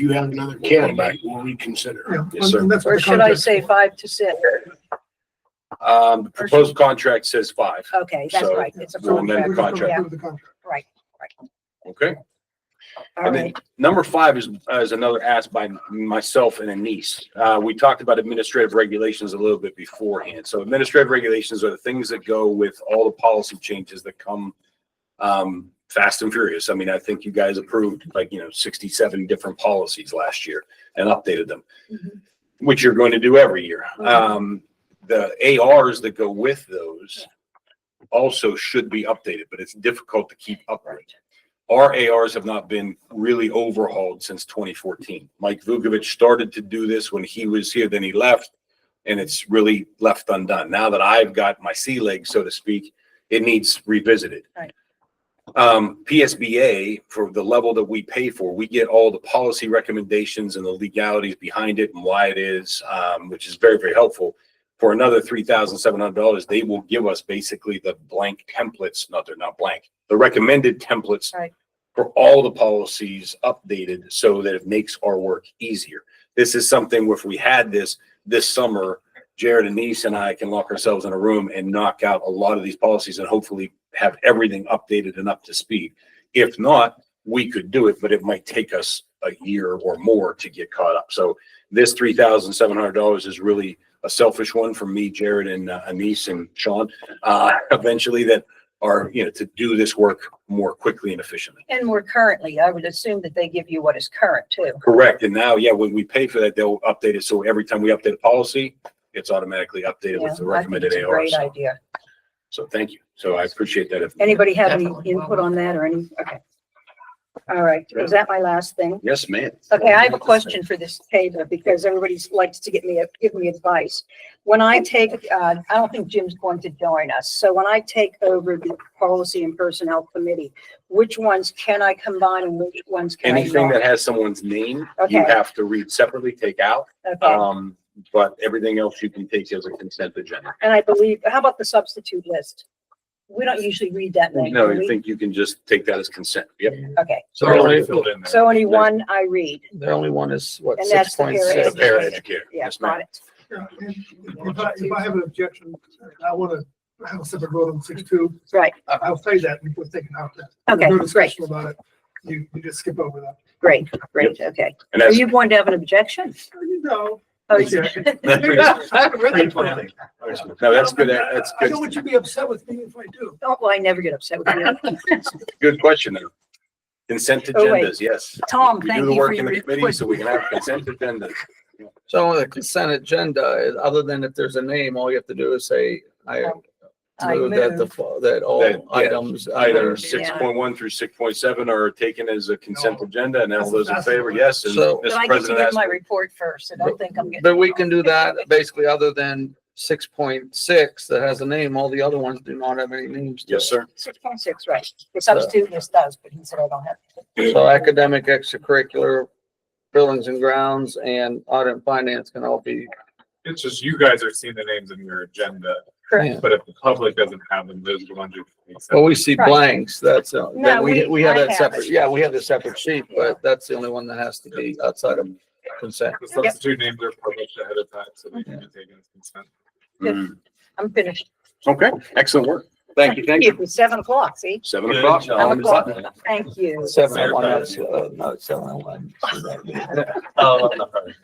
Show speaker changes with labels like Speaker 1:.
Speaker 1: you have another candidate, we'll reconsider.
Speaker 2: Yeah,
Speaker 3: Yes, sir.
Speaker 2: and that's what
Speaker 4: Or
Speaker 2: the
Speaker 4: should I
Speaker 2: contract's
Speaker 4: say
Speaker 2: for.
Speaker 4: five to six?
Speaker 3: Um, the proposed contract says five,
Speaker 4: Okay, that's
Speaker 3: So,
Speaker 4: right. It's a
Speaker 3: we'll amend
Speaker 4: contract.
Speaker 3: the
Speaker 4: Yeah,
Speaker 2: The contract.
Speaker 4: right, right.
Speaker 3: okay?
Speaker 4: All
Speaker 3: And then
Speaker 4: right.
Speaker 3: number five is, is another ask by myself and a niece. Uh, we talked about administrative regulations a little bit beforehand. So administrative regulations are the things that go with all the policy changes that come um, fast and furious. I mean, I think you guys approved like, you know, sixty-seven different policies last year and updated them,
Speaker 4: Mhm.
Speaker 3: which you're going to do every year.
Speaker 4: Mhm.
Speaker 3: Um, the ARs that go with those also should be updated, but it's difficult to keep up with our ARs have not been really overhauled since twenty fourteen. Mike Vukovich started to do this when he was here, then he left, and it's really left undone. Now that I've got my sea legs, so to speak, it needs revisited.
Speaker 4: Right.
Speaker 3: Um, PSBA, for the level that we pay for, we get all the policy recommendations and the legalities behind it and why it is, um, which is very, very helpful. For another three thousand seven hundred dollars, they will give us basically the blank templates, not, they're not blank, the recommended templates for all the policies updated so that it makes our work easier. This is something where if we had this this summer, Jared and Denise and I can lock ourselves in a room and knock out a lot of these policies and hopefully have everything updated and up to speed. If not, we could do it, but it might take us a year or more to get caught up. So this three thousand seven hundred dollars is really a selfish one for me, Jared and uh, Anise and Sean. Uh, eventually that are, you know, to do this work more quickly and efficiently.
Speaker 4: And more currently, I would assume that they give you what is current too.
Speaker 3: Correct. And now, yeah, when we pay for that, they'll update it. So every time we update a policy, it's automatically updated with
Speaker 4: Yeah,
Speaker 3: the
Speaker 4: I think
Speaker 3: recommended
Speaker 4: it's a
Speaker 3: AR.
Speaker 4: Great
Speaker 3: So,
Speaker 4: idea.
Speaker 3: so thank you. So I appreciate that. If-
Speaker 4: Anybody have any
Speaker 5: Definitely.
Speaker 4: input on that or any? Okay. All right. Was that my last thing?
Speaker 3: Yes, ma'am.
Speaker 4: Okay, I have a question for this Taylor, because everybody likes to get me, give me advice. When I take, uh, I don't think Jim's going to join us, so when I take over the Policy and Personnel Committee, which ones can I combine and which ones can I
Speaker 3: Anything that
Speaker 4: not?
Speaker 3: has someone's name, you
Speaker 4: Okay.
Speaker 3: have to read separately, take out.
Speaker 4: Okay,
Speaker 3: Um, but everything else you can take as a consent agenda.
Speaker 4: and I believe, how about the substitute list? We don't usually read that name.
Speaker 3: No,
Speaker 4: do we?
Speaker 3: I think you can just take that as consent. Yep.
Speaker 4: Okay,
Speaker 5: So the only,
Speaker 3: Filled in there.
Speaker 4: so only one I read.
Speaker 5: the only one is what,
Speaker 4: And that's
Speaker 5: six
Speaker 4: the
Speaker 5: point
Speaker 3: The
Speaker 5: six?
Speaker 4: paraeducator.
Speaker 3: paraeducator.
Speaker 4: Yeah,
Speaker 3: Yes,
Speaker 4: got
Speaker 3: ma'am.
Speaker 4: it.
Speaker 2: Yeah, and If I, if I have an objection, I want to have a separate vote on six two.
Speaker 4: Right,
Speaker 2: I'll say that before taking out that.
Speaker 4: okay,
Speaker 3: Mm-hmm.
Speaker 2: No
Speaker 4: great,
Speaker 2: discussion about it. You, you just skip over that.
Speaker 4: great, great, okay.
Speaker 3: And
Speaker 4: Are
Speaker 3: that's,
Speaker 4: you going to have an objection?
Speaker 2: You know.
Speaker 4: Oh,
Speaker 2: Yeah.
Speaker 4: Really?
Speaker 3: no, that's good.
Speaker 2: I-
Speaker 3: That's
Speaker 2: I know
Speaker 3: good.
Speaker 2: what you'd be upset with me if I do.
Speaker 4: Oh, well, I never get upset with you.
Speaker 3: Good question. though. Consent
Speaker 4: Oh, wait.
Speaker 3: agendas, yes.
Speaker 4: Tom,
Speaker 3: We
Speaker 4: thank
Speaker 3: do the
Speaker 4: you for
Speaker 3: work in
Speaker 4: your
Speaker 3: the committee, so
Speaker 4: question.
Speaker 3: we can have consent agendas.
Speaker 5: So on the consent agenda, other than if there's a name, all you have to do is say, I
Speaker 4: I
Speaker 5: move that the,
Speaker 4: move.
Speaker 5: fo- that
Speaker 3: That-
Speaker 5: all
Speaker 3: yeah,
Speaker 5: items.
Speaker 3: Item
Speaker 5: under-"
Speaker 3: six point one through six point seven are taken as a consent
Speaker 2: No.
Speaker 3: agenda, and all those in
Speaker 2: That's-
Speaker 3: favor, yes, and
Speaker 5: So-
Speaker 4: But
Speaker 3: Mr.
Speaker 4: I get to
Speaker 3: President
Speaker 4: give
Speaker 3: asked.
Speaker 4: my report first, so don't think I'm getting.
Speaker 5: But we can do that basically other than six point six that has a name. All the other ones do not have any names. to
Speaker 3: Yes,
Speaker 5: it.
Speaker 3: sir.
Speaker 4: Six point six, right. The substitute list does, but he said I don't have. to.
Speaker 5: So academic, extracurricular, buildings and grounds and audit and finance can all be,
Speaker 6: It's just you guys are seeing the names in your agenda,
Speaker 4: Correct.
Speaker 6: but if the public doesn't have them, those are the ones you. can accept.
Speaker 5: well, we see
Speaker 4: Right.
Speaker 5: blanks. That's, uh,
Speaker 4: No,
Speaker 5: that we,
Speaker 4: we-
Speaker 5: we have
Speaker 4: I
Speaker 5: that
Speaker 4: have
Speaker 5: separate.
Speaker 4: it.
Speaker 5: Yeah, we have the separate sheet,
Speaker 4: Yeah.
Speaker 5: but that's the only one that has to be outside of consent.
Speaker 6: The substitute names are published ahead of time, so they can be taken as consent.
Speaker 3: Mm.
Speaker 4: I'm finished.
Speaker 3: Okay, excellent work. Thank you, thank
Speaker 4: It
Speaker 3: you.
Speaker 4: was seven o'clock, see?
Speaker 3: Seven o'clock.
Speaker 4: Seven o'clock. Thank you.
Speaker 5: Seven oh one, that's, uh, no, it's seven oh one.
Speaker 3: Oh, I'm sorry.